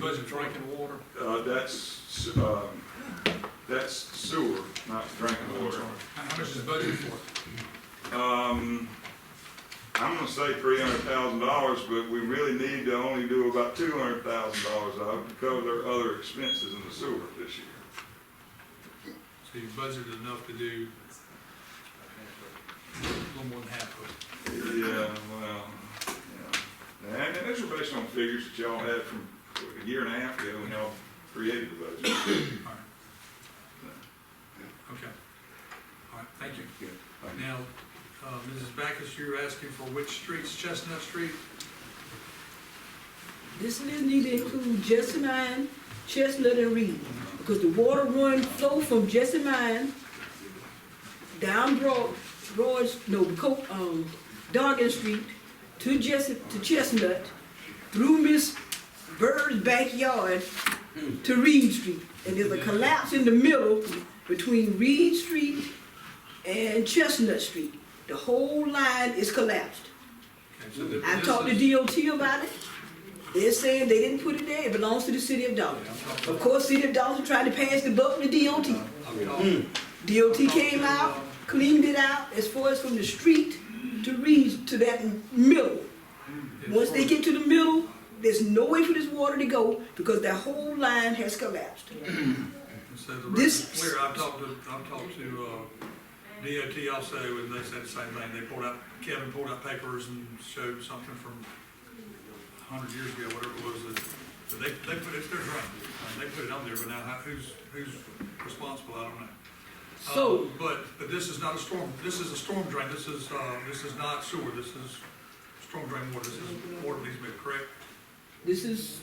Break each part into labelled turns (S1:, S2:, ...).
S1: Was it drinking water?
S2: Uh, that's, um, that's sewer, not drinking water.
S1: How much is budgeted for? it?
S2: Um, I'm gonna say three hundred thousand dollars, but we really need to only do about two hundred thousand dollars of it to cover their other expenses in the sewer this year.
S1: So you budgeted enough to do a little more than half of it.
S2: Yeah, well, yeah. And, and those are based on figures that y'all had from a year and a half ago when y'all created the budget.
S1: All right. Okay. All right, thank you.
S2: Yeah, thank you.
S1: Now, uh, Mrs. Backus, you're asking for which streets, Chestnut Street?
S3: This list need to include Jessamine, Chestnut, and Reed, because the water run flow from Jessamine down Broad, Broad, no, Co, um, Doggan Street to Jess, to Chestnut, through Miss Bird's backyard to Reed Street. And there's a collapse in the middle between Reed Street and Chestnut Street. The whole line is collapsed.
S1: Okay, so the-
S3: I
S1: this
S3: talked
S1: is-
S3: to DOT about it. They're saying they didn't put it there, it belongs to the city of Dalton. Of course, city of Dalton tried to pass the buck to DOT.
S1: I've talked-
S3: Mm. DOT came out, cleaned it out as far as from the street to reach to that middle. Once they get to the middle, there's no way for this water to go because that whole line has collapsed.
S1: So the
S3: this-
S1: record's clear, I've talked to, I've talked to, uh, DOT also, and they said the same thing, they pulled out, Kevin pulled out papers and showed something from a hundred years ago, whatever it was, that, that they, they put it, they're right, Uh, they put it on there, but now how, who's, who's responsible, I don't know. Uh,
S3: So-
S1: But, but this is not a storm, this is a storm drain, this is, uh, this is not sewer, this is storm drain water, this is water needs to be correct,
S3: This is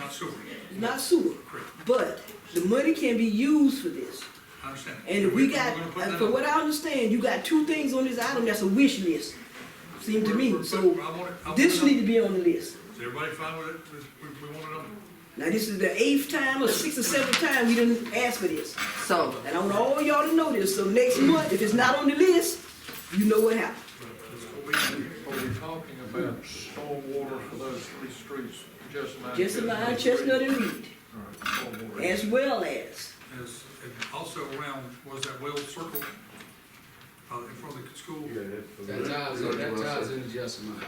S1: not sewer,
S3: not sewer,
S1: correct,
S3: but the money can be used for this.
S1: I understand.
S3: And if we
S1: We're
S3: got,
S1: gonna put
S3: uh,
S1: that
S3: from
S1: up.
S3: what I understand, you got two things on this item that's a wish list, seem to me. So this need to be on the
S1: Is
S3: list.
S1: everybody fine with it? We, we want it on?
S3: Now, this is the eighth time or sixth or seventh time we didn't ask for this.
S4: So,
S3: And I want all y'all to know this, so next month, if it's not on the list, you know what happened.
S5: Are we, are we talking about stormwater for those three streets, Jessamine?
S3: Jessamine, Chestnut, and Reed,
S5: Stormwater.
S3: as well as,
S1: Is, and also around, was that well circle, uh, in front of the school? Okay,
S6: That ties, in- that ties into Jessamine.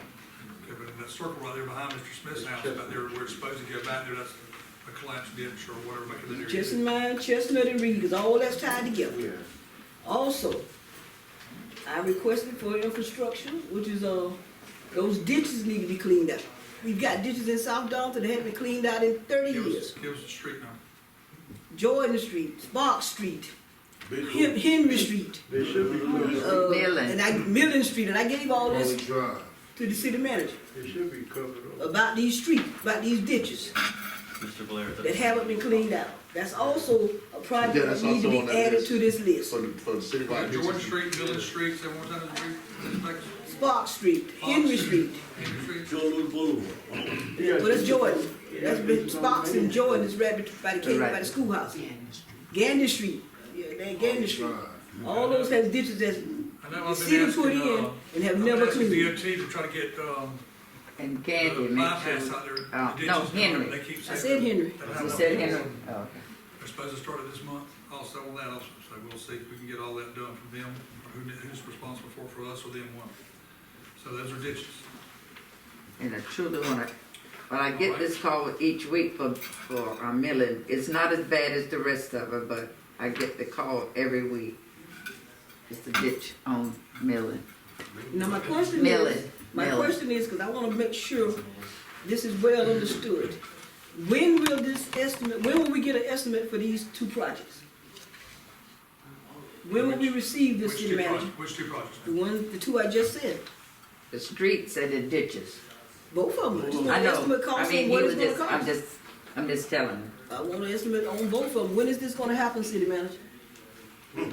S1: but in that circle right there behind Mr. Smith's house, about there, where it's supposed to go back there, that's a collapsed ditch or whatever, back in that area.
S3: Jessamine, Chestnut, and Reed, is all that's tied together. Also, I requested for infrastructure, which is, uh, those ditches need to be cleaned out. We've got ditches in South Dalton that haven't been cleaned out in thirty
S1: Give
S3: years.
S1: us, give us a street number.
S3: Jordan Street, Spark Street, Hen- Henry Street, uh,
S4: Millen.
S3: and I, Millen Street, and I gave all
S6: Only
S3: this
S6: drive.
S3: to the city manager
S7: It should be covered up.
S3: about these streets, about these ditches
S8: Mr. Blair,
S3: that haven't been cleaned out. That's also a
S7: Yeah,
S3: project that
S7: that's
S3: needs to be
S7: also on that
S3: added
S7: list.
S3: to this list.
S7: For the, for the city. right here.
S1: George Street, Village Street, say one more time, Mr. Backus?
S3: Spark Street, Henry Street,
S1: Henry Street?
S3: well, that's Jordan, that's been, Sparks and Jordan is right bet- by the, cave- by the
S4: Right.
S3: schoolhouse. Gander Street, yeah, that Gander Street, all those have ditches that's,
S1: I know
S3: the
S1: I've been
S3: city
S1: asking,
S3: put in
S1: uh,
S3: and have
S1: I've
S3: never
S1: been asking
S3: cleaned.
S1: DOT to try to get, um,
S4: and
S1: the
S4: Candy, make
S1: bypass
S4: sure.
S1: out there.
S4: Oh,
S1: the
S4: no,
S1: ditches,
S4: Henry.
S1: They keep
S3: I
S1: saying.
S3: said Henry.
S1: that- that-
S4: You said Henry, oh, okay.
S1: They're supposed to start it this month, also on that also, so we'll see if we can get all that done from them, or who, who's responsible for, it, for us or them one. So those are ditches.
S4: And I truly wanna, but I get this call each week for, for a milling. It's not as bad as the rest of it, but I get the call every week. It's the ditch on milling,
S3: Now, my question is,
S4: milling,
S3: my
S4: milling.
S3: question is, because I want to make sure this is well understood. When will this estimate, when will we get an estimate for these two projects? When will we receive
S1: Which
S3: this city
S1: two
S3: manager?
S1: projects, which two projects?
S3: The one, the two I just said,
S4: The streets and the ditches.
S3: both of them. I just want
S4: I
S3: an
S4: know,
S3: estimate
S4: I
S3: cost
S4: mean,
S3: and
S4: he
S3: what
S4: was
S3: it's gonna
S4: just, I'm
S3: cost.
S4: just, I'm just telling you.
S3: I want an estimate on both of them. When is this gonna happen, city manager?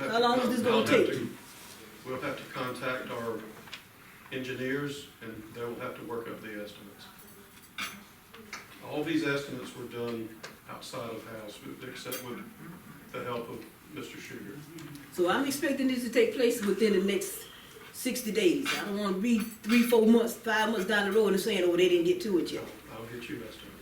S3: How long is this
S5: I'll
S3: gonna
S5: have
S3: take?
S5: to- We'll have to contact our engineers, and they will have to work up the estimates. All these estimates were done outside of house, with- except with the help of Mr. Sugar.
S3: So I'm expecting this to take place within the next sixty days. I don't wanna be three, four months, five months down the road and saying, oh, they didn't get to it yet.
S5: I'll get you estimates.